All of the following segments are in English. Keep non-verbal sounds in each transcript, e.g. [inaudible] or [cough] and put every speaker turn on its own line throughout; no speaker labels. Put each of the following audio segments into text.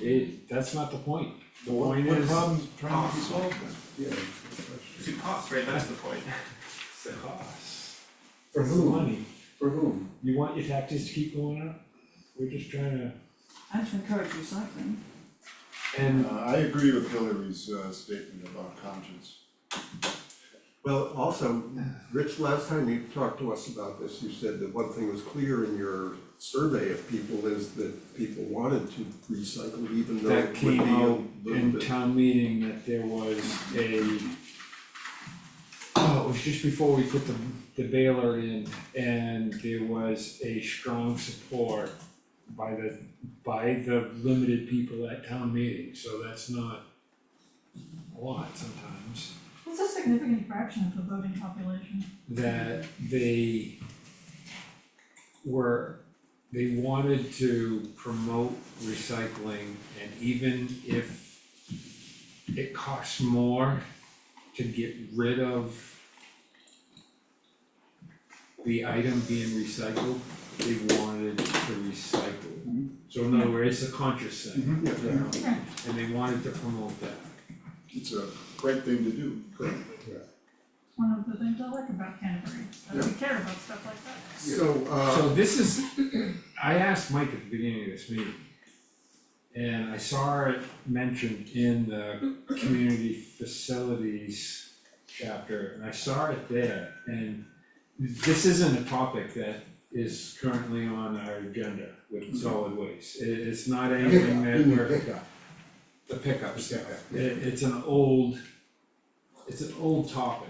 It, that's not the point. The
What
point
what
is,
problem's trying to be solved then? Yeah.
It's a cost, right, that's the point.
it's the cost.
For
It's the
whom,
Money.
for whom?
You want your taxes to keep going up? We're just trying to,
I should encourage recycling.
and
Uh, I agree with Hillary's uh, statement about conscience.
Well, also, Rich, last time you talked to us about this, you said that one thing was clear in your survey of people is that people wanted to recycle even though
that
it would be
came
a
out
little bit.
in town meeting that there was a oh, it was just before we put the the baler in and there was a strong support by the by the limited people at town meeting, so that's not a lot sometimes.
It's a significant fraction of the voting population.
that they were, they wanted to promote recycling and even if it costs more to get rid of the item being recycled, they wanted to recycle. So in other words, it's a conscious thing,
Mhm.
Mm-hmm.
you know,
Right.
and they wanted to promote that.
It's a great thing to do.
It's one of the things I like about Canterbury, is that we care about stuff like that.
So, uh,
So this is, I asked Mike at the beginning of this meeting. And I saw it mentioned in the community facilities chapter, and I saw it there, and this isn't a topic that is currently on our agenda with solid waste. It, it's not anything
Pickup,
that
you mean
we're,
pickup.
the pickup stuff,
Pickup, yeah.
it, it's an old, it's an old topic.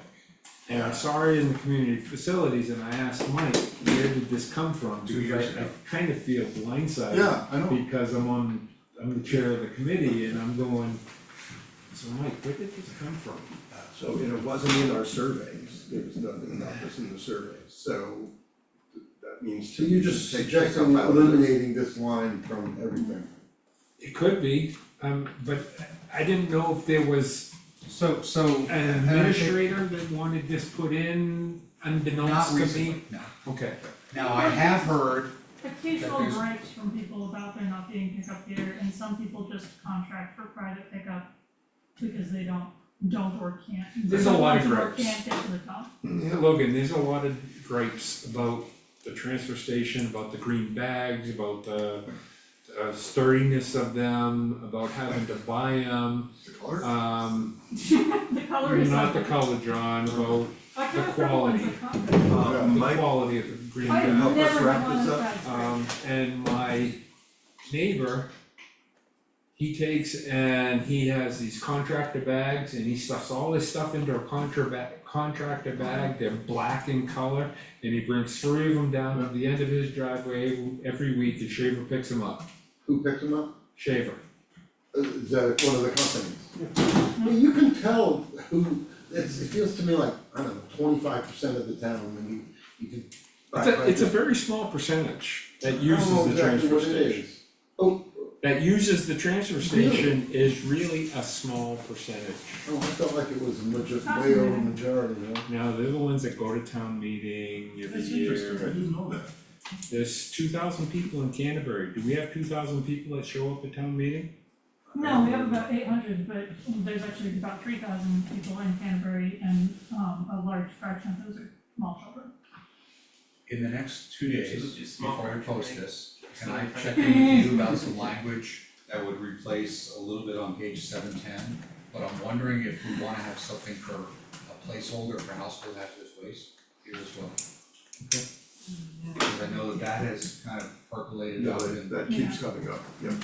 And I saw it in the community facilities and I asked Mike, where did this come from?
Two years
Because I, I
ago.
kind of feel blindsided.
Yeah, I know.
Because I'm on, I'm the chair of the committee and I'm going, so Mike, where did this come from?
so and it wasn't in our surveys, there was nothing about this in the surveys, so that means.
So you're just
take
suggesting
yourself out of this.
eliminating this line from everything?
It could be, um, but I didn't know if there was
So, so.
an administrator that wanted this put in unbeknownst
Not
to me.
recently, no.
Okay,
Now, I have heard,
Occasional
there's-
gripes from people about there not being pickup here, and some people just contract for private pickup because they don't, don't or can't.
There's a lot of
don't Or
gripes.
can't get to the top. [laughs]
Yeah, Logan, there's a lot of gripes about the transfer station, about the green bags, about the uh, sturdiness of them, about having to buy them,
The color?
um,
The color is.
not the
ugly.
color, John, about
I
the
can't remember when's the color.
Uh,
the
Mike,
quality of the green
I
bag.
help
have
us
never
wrap
gone on
this up?
that trip.
Um, and my neighbor, he takes and he has these contractor bags and he stuffs all this stuff into a contraba- contractor bag, they're black in color. And he brings three of them down to the end of his driveway every week and Shaver picks them up,
Who picked them up?
Shaver.
Uh, Is that one of the companies? I mean, you can tell who, it's, it feels to me like, I don't know, twenty-five percent of the town, when you, you can.
It's a, it's a very small percentage that
I don't know
uses the
Oh, exactly
transfer
what it
station.
is.
That uses the transfer station is really a small percentage.
Oh, I felt like it was a major, way
Fascinating.
over majority, you know?
Now, they're the ones that go to town meeting every
That's
year.
interesting, I didn't know that.
There's two thousand people in Canterbury, do we have two thousand people that show up at town meeting?
No, we have about eight hundred, but there's actually about three thousand people in Canterbury and, um, a large fraction of those are small children.
in the next two
It's-
days,
it's small,
before I post
right?
this, can I check in with you about some language that would replace a little bit on page seven ten? But I'm wondering if we wanna have something for a placeholder for household hazardous waste here as well. Cause I know that that has kind of percolated
no,
out
that-
and.
that keeps coming up, yeah.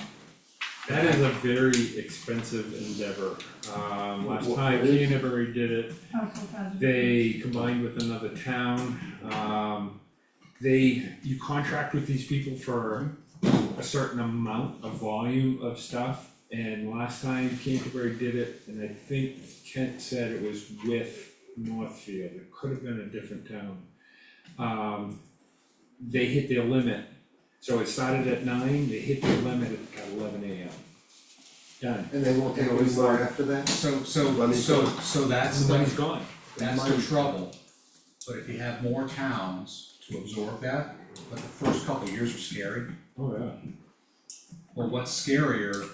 That is a very expensive endeavor, um, last
Wha-
time
what is-
Canterbury did it,
Household hazardous.
they combined with another town, um. They, you contract with these people for a certain amount of volume of stuff, and last time Canterbury did it, and I think Kent said it was with Northfield, it could have been a different town. Um, they hit their limit, so it started at nine, they hit their limit at eleven AM. Done,
And they won't take
It
any
was
more
like-
after that?
So, so,
Money.
so, so that's the,
everybody's gone.
That's the
Mine-
trouble, but if you have more towns to absorb that, but the first couple of years are scary.
Oh, yeah.
But what's scarier